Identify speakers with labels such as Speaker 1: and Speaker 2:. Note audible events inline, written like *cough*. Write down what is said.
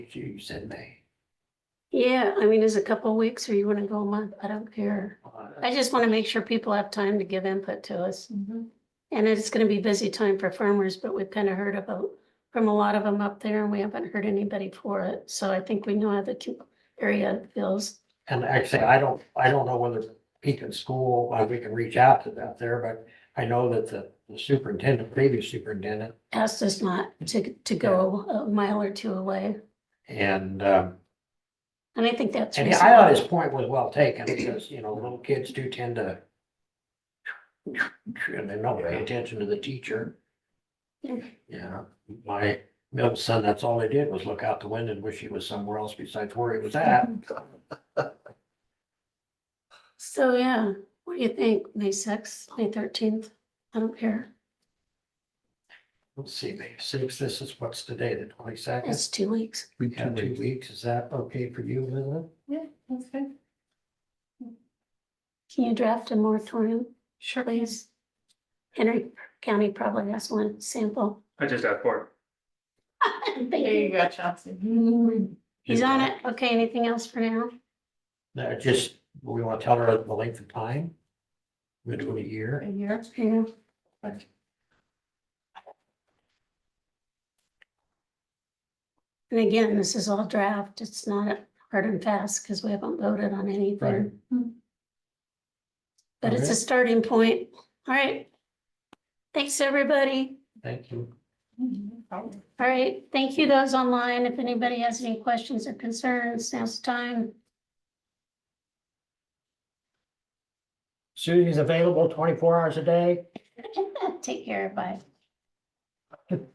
Speaker 1: You said May.
Speaker 2: Yeah, I mean, is a couple of weeks or you want to go a month? I don't care. I just want to make sure people have time to give input to us. And it's going to be busy time for farmers, but we've kind of heard about, from a lot of them up there and we haven't heard anybody for it. So I think we know how the com- area feels.
Speaker 1: And actually, I don't, I don't know whether Pekin School, uh, we can reach out to that there, but I know that the the superintendent, previous superintendent,
Speaker 2: Asked us not to, to go a mile or two away.
Speaker 1: and, um,
Speaker 2: And I think that's.
Speaker 1: and I thought his
Speaker 2: reasonable.
Speaker 1: point was well taken, because, you know, little kids do tend to and they don't pay attention to the teacher.
Speaker 2: Yeah.
Speaker 1: Yeah, my middle son, that's all he did was look out the window and wish he was somewhere else besides where he was at.
Speaker 2: So, yeah, what do you think? May sixth, May thirteenth? I don't care.
Speaker 1: Let's see, May sixth, this is what's today, the twenty-second?
Speaker 2: It's two weeks.
Speaker 3: We
Speaker 1: Yeah,
Speaker 3: can
Speaker 1: two
Speaker 3: wait.
Speaker 1: weeks, is that okay for you, Linda?
Speaker 4: Yeah, that's good.
Speaker 2: Can you draft a moratorium? Sure. Please. Henry County probably has one sample.
Speaker 5: I just asked for it.
Speaker 4: There you go, *laughs* Chauncey.
Speaker 2: He's on it. Okay, anything else for now?
Speaker 1: No, just, we want to tell her the length of time? Between a
Speaker 4: A
Speaker 1: year?
Speaker 4: year.
Speaker 2: Yeah. And again, this is all draft. It's not hard and fast because we haven't voted on anything. But it's a
Speaker 1: Okay.
Speaker 2: starting point. All right. Thanks, everybody.
Speaker 1: Thank you.
Speaker 4: Mm-hmm.
Speaker 2: All right, thank you those online. If anybody has any questions or concerns, now's the time. *laughs*
Speaker 1: Susie's available twenty-four hours a day?
Speaker 2: Take care, bye.